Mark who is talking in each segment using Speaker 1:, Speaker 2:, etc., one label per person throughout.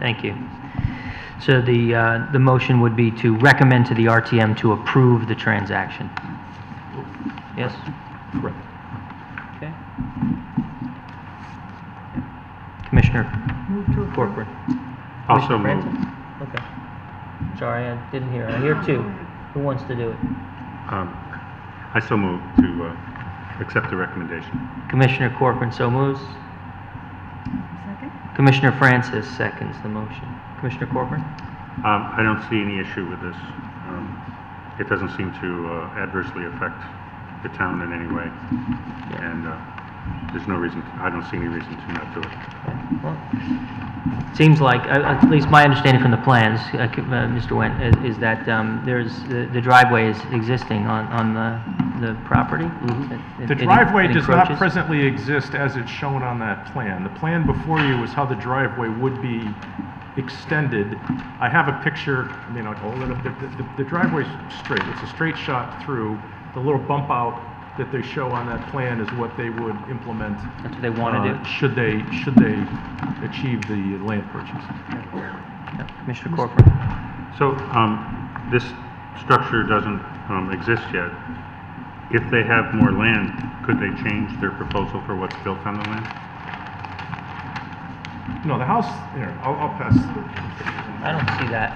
Speaker 1: Thank you. So the, uh, the motion would be to recommend to the RTM to approve the transaction. Yes?
Speaker 2: Correct.
Speaker 1: Okay. Commissioner
Speaker 3: Move to approve.
Speaker 1: Corcoran?
Speaker 2: Also
Speaker 1: Commissioner
Speaker 2: move.
Speaker 1: Franzen? Okay. Sorry, I didn't hear. I hear two. Who wants to do it?
Speaker 2: Um, I so move to uh, accept the recommendation.
Speaker 1: Commissioner Corcoran so moves.
Speaker 3: Second?
Speaker 1: Commissioner Francis seconds the motion. Commissioner Corcoran?
Speaker 2: Um, I don't see any issue with this. Um, It doesn't seem to uh, adversely affect the town in any way, and uh, there's no reason, I don't see any reason to not do it.
Speaker 1: Well, Seems like, uh, at least my understanding from the plans, uh, c- uh, Mr. Wen, is- is that um, there's, the the driveway is existing on, on the, the property? It- it-
Speaker 4: Mm-hmm. The
Speaker 1: it
Speaker 4: driveway does not
Speaker 1: encroaches?
Speaker 4: presently exist as it's shown on that plan. The plan before you is how the driveway would be extended. I have a picture, I mean, I'll hold it up, The- the the driveway's straight, it's a straight shot through. The little bump out that they show on that plan is what they would implement.
Speaker 1: That's what they want to
Speaker 4: uh,
Speaker 1: do?
Speaker 4: Should they, should they achieve the land purchase.
Speaker 1: Yeah, Commissioner Corcoran?
Speaker 2: So um, this structure doesn't um, exist yet. If they have more land, could they change their proposal for what's built on the land?
Speaker 4: No, the house, here, I'll, I'll pass.
Speaker 1: I don't see that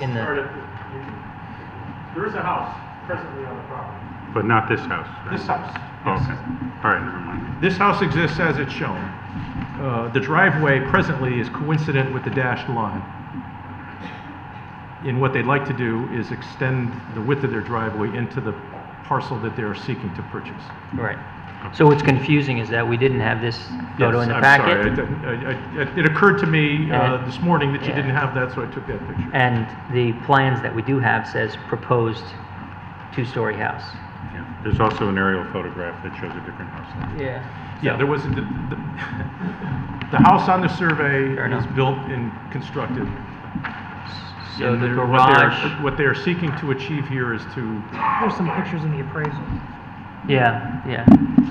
Speaker 1: in the,
Speaker 4: There is a house presently on the property.
Speaker 2: But not this house, right?
Speaker 4: This house.
Speaker 2: Oh, Okay, all right, never mind.
Speaker 4: This house exists as it's shown. Uh, The driveway presently is coincident with the dashed line. And what they'd like to do is extend the width of their driveway into the parcel that they're seeking to purchase.
Speaker 1: right. So what's confusing is that we didn't have this photo in the
Speaker 4: Yes,
Speaker 1: packet.
Speaker 4: I'm sorry. I- I- I- It occurred to me uh,
Speaker 1: And-
Speaker 4: this morning that you
Speaker 1: yeah. Uh,
Speaker 4: didn't have that, so I took that picture.
Speaker 1: And the plans that we do have says proposed two-story house.
Speaker 2: Yeah. There's also an aerial photograph that shows a different house.
Speaker 1: Yeah.
Speaker 4: Yeah, there was, the- the the house on the survey
Speaker 1: Fair
Speaker 4: is
Speaker 1: enough.
Speaker 4: built and constructed
Speaker 1: So
Speaker 4: And
Speaker 1: the
Speaker 4: they're- what they're-
Speaker 1: garage,
Speaker 4: What they're seeking to achieve here is to,
Speaker 3: There's some pictures in the appraisal.
Speaker 1: yeah, yeah.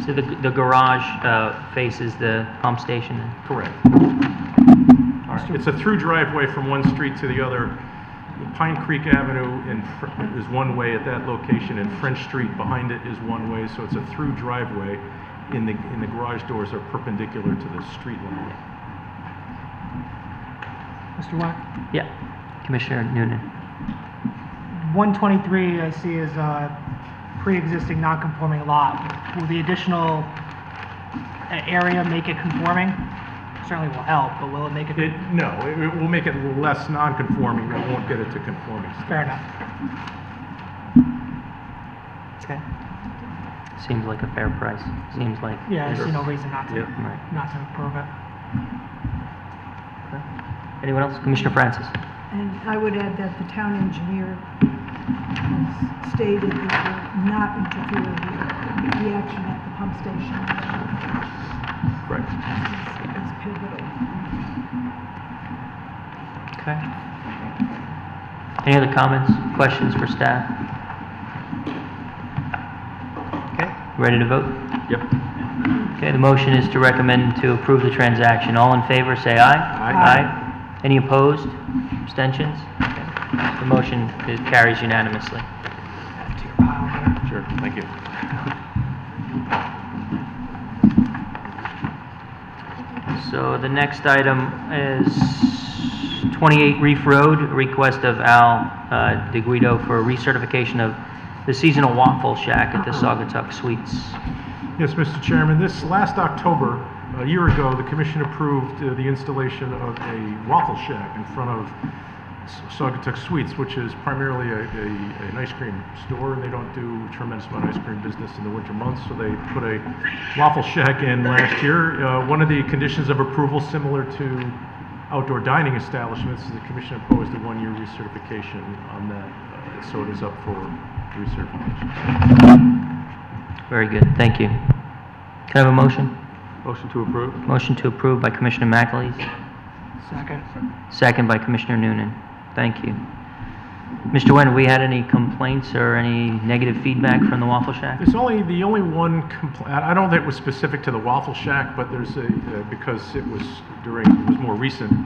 Speaker 1: So the, the garage uh, faces the pump station then?
Speaker 4: correct. It's a through driveway from one street to the other. Pine Creek Avenue in, Fr- is one way at that location, and French Street behind it is one way, so it's a through driveway. And the, and the garage doors are perpendicular to the street line.
Speaker 3: Mr. Wack?
Speaker 1: Yeah. Commissioner Noonan.
Speaker 3: 123 I see is a pre-existing non-conforming lot. Will the additional uh, area make it conforming? Certainly will help, but will it make
Speaker 4: It,
Speaker 3: it,
Speaker 4: no, it it will make it less non-conforming, but it won't get it to conforming.
Speaker 3: fair enough.
Speaker 1: Okay. Seems like a fair price. Seems like.
Speaker 3: Yeah, I
Speaker 1: it's-
Speaker 3: see no reason not to,
Speaker 4: Yep.
Speaker 1: Right.
Speaker 3: not to approve it.
Speaker 1: Okay. Anyone else? Commissioner Francis?
Speaker 5: And I would add that the town engineer has stated that will not interfere with the action at the pump station.
Speaker 4: Correct.
Speaker 5: It's pivotal.
Speaker 1: Okay. Any other comments, questions for staff? Okay, ready to vote?
Speaker 4: Yep.
Speaker 1: Okay, the motion is to recommend to approve the transaction. All in favor, say aye.
Speaker 4: Aye.
Speaker 1: Aye. Any opposed? Abstentions? Okay. The motion is- carries unanimously.
Speaker 4: Sure, thank you.
Speaker 1: So the next item is 28 Reef Road, a request of Al uh, DeGuido for recertification of the seasonal waffle shack at the Saugatuck Suites.
Speaker 4: Yes, Mr. Chairman, this last October, a year ago, the commission approved uh, the installation of a waffle shack in front of S- Saugatuck Suites, which is primarily a, a, an ice cream store, and they don't do a tremendous amount of ice cream business in the winter months, so they put a waffle shack in last year. Uh, one of the conditions of approval, similar to outdoor dining establishments, is the commission imposed a one-year recertification on that, uh, so it is up for recertification.
Speaker 1: Very good, thank you. Can I have a motion?
Speaker 4: Motion to approve.
Speaker 1: Motion to approve by Commissioner McAleese,
Speaker 3: Second.
Speaker 1: second by Commissioner Noonan. Thank you. Mr. Nguyen, have we had any complaints or any negative feedback from the Waffle Shack?
Speaker 4: It's only, the only one compl- I I don't think it was specific to the Waffle Shack, but there's a, uh, because it was during, it was more recent,